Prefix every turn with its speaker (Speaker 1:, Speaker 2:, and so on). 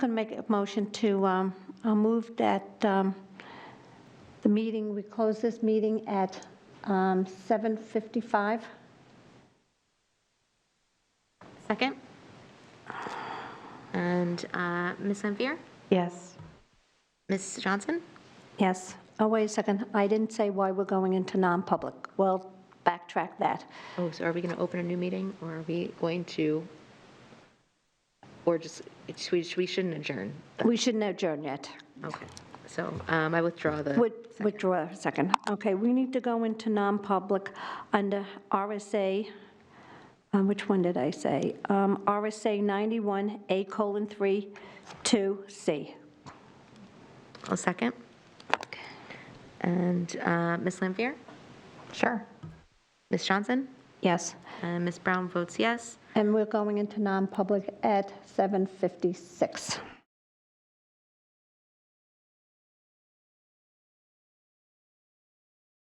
Speaker 1: Going to make a motion to, um, I'll move that um, the meeting, we close this meeting at um, 7:55.
Speaker 2: Second. And uh, Ms. Lampier?
Speaker 3: Yes.
Speaker 2: Ms. Johnson?
Speaker 1: Yes. Oh, wait a second. I didn't say why we're going into non-public. We'll backtrack that.
Speaker 2: Oh, so are we going to open a new meeting, or are we going to, or just, it's- we we shouldn't adjourn?
Speaker 1: We shouldn't adjourn yet.
Speaker 2: Okay, so um, I withdraw the.
Speaker 1: With- Withdraw a second. Okay, we need to go into non-public under RSA, um, which one did I say? Um, RSA 91, A colon 3, 2C.
Speaker 2: I'll second. And uh, Ms. Lampier?
Speaker 3: Sure.
Speaker 2: Ms. Johnson?
Speaker 1: Yes.
Speaker 2: And Ms. Brown votes yes.
Speaker 1: And we're going into non-public at 7:56.